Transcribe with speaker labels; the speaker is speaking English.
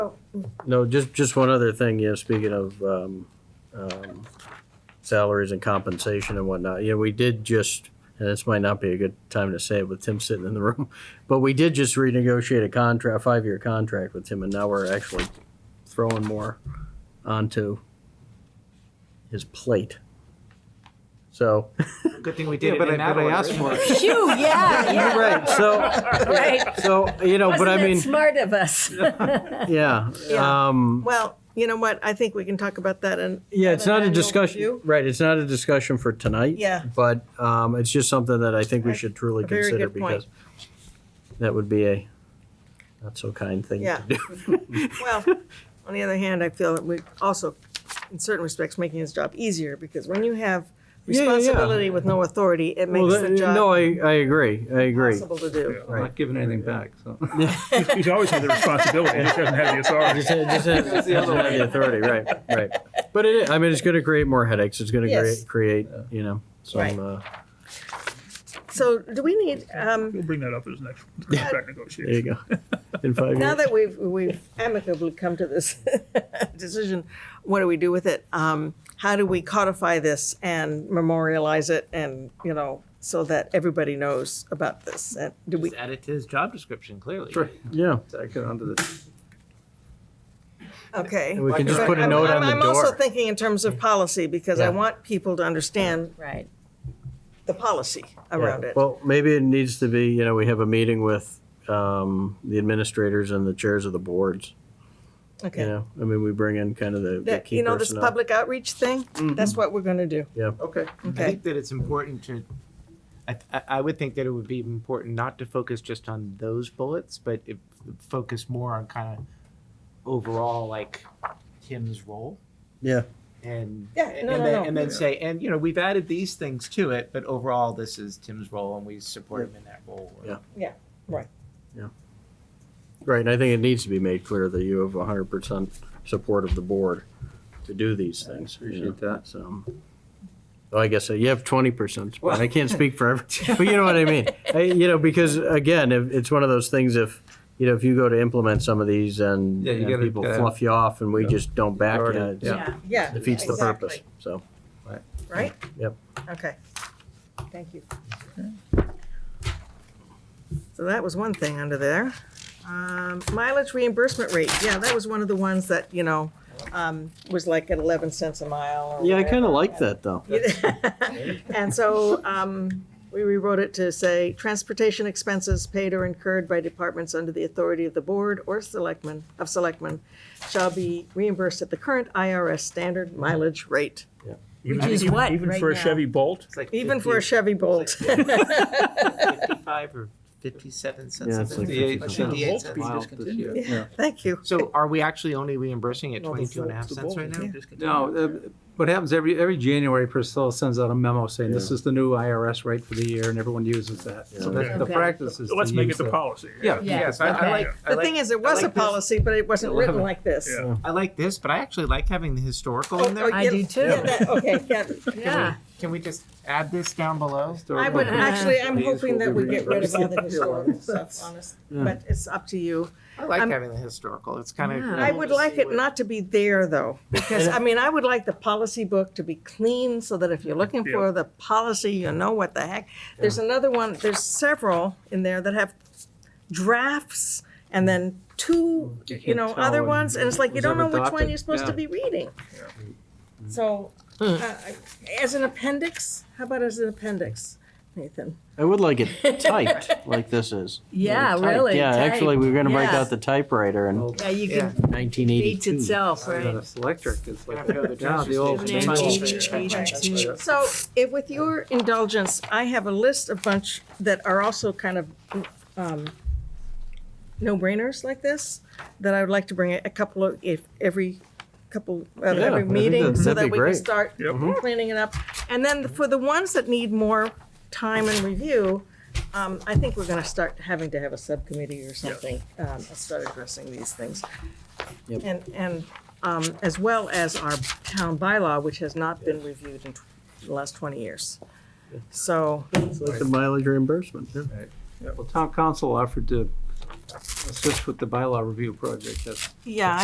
Speaker 1: Oh,
Speaker 2: No, just, just one other thing, you know, speaking of, um, um, salaries and compensation and whatnot, yeah, we did just, and this might not be a good time to say it with Tim sitting in the room, but we did just renegotiate a contract, a five-year contract with him, and now we're actually throwing more onto his plate. So,
Speaker 3: Good thing we
Speaker 1: yeah,
Speaker 3: did
Speaker 1: but I,
Speaker 3: it in that
Speaker 1: but I asked for
Speaker 3: order.
Speaker 1: it.
Speaker 4: Phew, yeah, yeah.
Speaker 2: right, so,
Speaker 4: Right.
Speaker 2: so, you know, but I
Speaker 4: Wasn't that
Speaker 2: mean,
Speaker 4: smart of us.
Speaker 2: yeah,
Speaker 1: Yeah.
Speaker 2: um.
Speaker 1: Well, you know what? I think we can talk about that and.
Speaker 2: Yeah, it's
Speaker 1: have
Speaker 2: not
Speaker 1: an
Speaker 2: a
Speaker 1: annual
Speaker 2: discussion,
Speaker 1: review.
Speaker 2: right, it's not a discussion for tonight.
Speaker 1: Yeah.
Speaker 2: But um, it's just something that I think we
Speaker 1: Right.
Speaker 2: should truly
Speaker 1: A very
Speaker 2: consider
Speaker 1: good point.
Speaker 2: because that would be a not so kind thing
Speaker 1: Yeah.
Speaker 2: to do.
Speaker 1: Well, on the other hand, I feel that we also, in certain respects, making his job easier because when you have
Speaker 2: Yeah, yeah, yeah.
Speaker 1: responsibility with no authority, it
Speaker 2: Well,
Speaker 1: makes the
Speaker 2: that- uh, No,
Speaker 1: job
Speaker 2: I, I agree, I agree.
Speaker 1: impossible to do.
Speaker 3: I'm not giving anything back, so.
Speaker 5: He's always had the responsibility, he just doesn't have the authority.
Speaker 2: Just ha- just ha-
Speaker 3: That's the
Speaker 2: doesn't
Speaker 3: other
Speaker 2: have the authority, right, right. But it, I mean, it's gonna create more headaches, it's gonna
Speaker 1: Yes.
Speaker 2: create, create, you know,
Speaker 1: Right.
Speaker 2: some, uh,
Speaker 1: So do we need, um,
Speaker 5: We'll bring that up as next contract
Speaker 2: there you
Speaker 5: negotiation.
Speaker 2: go. In five
Speaker 1: now
Speaker 2: years,
Speaker 1: that we've, we've amicably come to this decision, what do we do with it? Um, how do we codify this and memorialize it and, you know, so that everybody knows about this? And do we,
Speaker 3: Just add it to his job description, clearly.
Speaker 2: yeah,
Speaker 3: Tack it onto the-
Speaker 1: okay.
Speaker 2: we can just
Speaker 1: But
Speaker 2: put a
Speaker 1: I'm-
Speaker 2: note
Speaker 1: I'm-
Speaker 2: on the
Speaker 1: I'm also
Speaker 2: door.
Speaker 1: thinking in terms of policy, because I
Speaker 2: Yeah.
Speaker 1: want people to understand
Speaker 4: Right.
Speaker 1: the policy
Speaker 2: Yeah,
Speaker 1: around it.
Speaker 2: Well, maybe it needs to be, you know, we have a meeting with um, the administrators and the chairs of the boards. You
Speaker 1: Okay.
Speaker 2: know, I mean, we bring in kind of the, the
Speaker 1: That-
Speaker 2: key
Speaker 1: You know, this
Speaker 2: personnel.
Speaker 1: public outreach thing,
Speaker 2: Mm-hmm.
Speaker 1: that's what we're gonna do.
Speaker 3: Okay. I
Speaker 1: Okay.
Speaker 3: think that it's important to, I, th- I- I would think that it would be important not to focus just on those bullets, but if, focus more on kind of overall, like Tim's role.
Speaker 2: Yeah.
Speaker 3: And,
Speaker 1: Yeah,
Speaker 3: and
Speaker 1: no, no,
Speaker 3: then,
Speaker 1: no.
Speaker 3: and then say, and, you know, we've added these things to it, but overall, this is Tim's role and we support him in that role.
Speaker 2: Yeah. Right, and I think it needs to be made clear that you have hundred percent support of the board to do these things. you know,
Speaker 3: appreciate that.
Speaker 2: So, well, I guess uh, you have twenty percent, but I can't speak for every, but you know what I mean? I- You know, because again, if- it's one of those things if, you know, if you go to implement some of these and
Speaker 3: Yeah, you
Speaker 2: and
Speaker 3: gotta,
Speaker 2: people
Speaker 3: uh,
Speaker 2: fluff you off and we
Speaker 3: yeah.
Speaker 2: just don't back you,
Speaker 3: Already,
Speaker 2: it's-
Speaker 3: Yeah.
Speaker 1: Yeah.
Speaker 2: defeats the
Speaker 1: exactly.
Speaker 2: purpose, so.
Speaker 1: Right?
Speaker 2: Yep.
Speaker 1: Okay. Thank you. So that was one thing under there. Um, Mileage reimbursement rate, yeah, that was one of the ones that, you know, um, was like at 11 cents a mile or
Speaker 2: Yeah, I kind
Speaker 1: whatever.
Speaker 2: of like that, though.
Speaker 1: And so um, we rewrote it to say, transportation expenses paid or incurred by departments under the authority of the board or selectmen, of selectmen, shall be reimbursed at the current IRS standard mileage rate,
Speaker 5: Even-
Speaker 4: Which is
Speaker 5: even-
Speaker 4: what,
Speaker 5: Even
Speaker 4: right
Speaker 5: for a
Speaker 4: now?
Speaker 5: Chevy Bolt,
Speaker 3: It's like
Speaker 1: even for a
Speaker 3: 50
Speaker 1: Chevy Bolt.
Speaker 3: Fifty-five or fifty-seven cents.
Speaker 2: Yeah, it's like
Speaker 3: 58
Speaker 2: 50 cents.
Speaker 3: cents.
Speaker 5: Wow, this year.
Speaker 1: Thank you.
Speaker 3: So are we actually only reimbursing at
Speaker 5: No, the
Speaker 3: twenty-two and a half
Speaker 5: full- the
Speaker 3: cents
Speaker 5: full-
Speaker 3: right now?
Speaker 6: No, uh, what happens every, every January, Priscilla sends out a memo saying this is the new IRS rate for the year and everyone uses that. So that's the
Speaker 4: Okay.
Speaker 6: practice is to
Speaker 5: let's make
Speaker 6: use
Speaker 5: it the
Speaker 6: that.
Speaker 5: policy.
Speaker 6: Yeah.
Speaker 4: Yeah.
Speaker 3: Yes, I, I
Speaker 4: Okay.
Speaker 3: like. I
Speaker 1: The
Speaker 3: like-
Speaker 1: thing is,
Speaker 3: I
Speaker 1: it was a
Speaker 3: like this-
Speaker 1: policy, but it wasn't written like this.
Speaker 5: Yeah.
Speaker 1: Oh,
Speaker 3: I like this, but I actually like having the historical
Speaker 1: oh,
Speaker 3: in there.
Speaker 4: I
Speaker 1: yeah,
Speaker 4: do too.
Speaker 1: yeah, that- Okay, yeah.
Speaker 4: Yeah.
Speaker 3: Can we just add this down below?
Speaker 1: I would,
Speaker 4: Okay.
Speaker 1: actually, I'm
Speaker 6: These
Speaker 1: hoping
Speaker 6: will
Speaker 1: that
Speaker 6: be
Speaker 1: we get rid of all the
Speaker 6: reimbursed.
Speaker 1: historical stuff, honest, but it's up to you.
Speaker 3: I like
Speaker 1: I'm-
Speaker 3: having the historical. It's kind of.
Speaker 4: Yeah.
Speaker 1: I would like it not to be there, though, because, I mean, I would like the policy book to be clean so that if you're looking
Speaker 5: Yeah.
Speaker 1: for the policy, you know what the heck. There's another one, there's several in there that have drafts and then two,
Speaker 6: You can't
Speaker 1: you know,
Speaker 6: tell
Speaker 1: other
Speaker 6: when
Speaker 1: ones, and it's like, you
Speaker 6: was
Speaker 1: don't know
Speaker 6: ever
Speaker 1: which one
Speaker 6: adopted.
Speaker 1: you're supposed to
Speaker 6: Yeah. Hmm.
Speaker 1: be reading. So, uh, I- as an appendix, how about as an appendix, Nathan?
Speaker 2: I would like it typed, like this is.
Speaker 4: Yeah,
Speaker 2: Typed.
Speaker 4: really.
Speaker 2: Yeah,
Speaker 4: type.
Speaker 2: actually, we were gonna break
Speaker 4: Yeah.
Speaker 2: out the typewriter in
Speaker 6: Well,
Speaker 4: Yeah, you
Speaker 3: Yeah.
Speaker 4: can
Speaker 2: nineteen
Speaker 4: beat
Speaker 2: eighty-two.
Speaker 4: itself,
Speaker 6: I got
Speaker 4: right?
Speaker 6: a selectric, it's
Speaker 3: I
Speaker 6: like,
Speaker 3: don't know, the
Speaker 6: yeah, the old.
Speaker 4: transfer
Speaker 6: manual.
Speaker 4: station. Yeah.
Speaker 1: So, if with your indulgence, I have a list of bunch that are also kind of um, no-brainers like this, that I would like to bring a couple of, if, every couple, at
Speaker 2: Yeah, I
Speaker 1: every
Speaker 2: think
Speaker 1: meeting,
Speaker 2: that-
Speaker 1: so
Speaker 2: that'd
Speaker 1: that
Speaker 2: be
Speaker 1: we can
Speaker 2: great. Mm-hmm.
Speaker 1: start
Speaker 5: Yep.
Speaker 1: cleaning it up. And then for the ones that need more time and review, um, I think we're gonna start having to have a subcommittee or something, um, and start addressing these things.
Speaker 2: Yep.
Speaker 1: And, and, um, as well as our town bylaw, which has not been reviewed in tw- the last twenty years. So,
Speaker 2: It's like the mileage reimbursement. yeah.
Speaker 6: Well, town council offered to assist with the bylaw review project, that's
Speaker 1: yeah,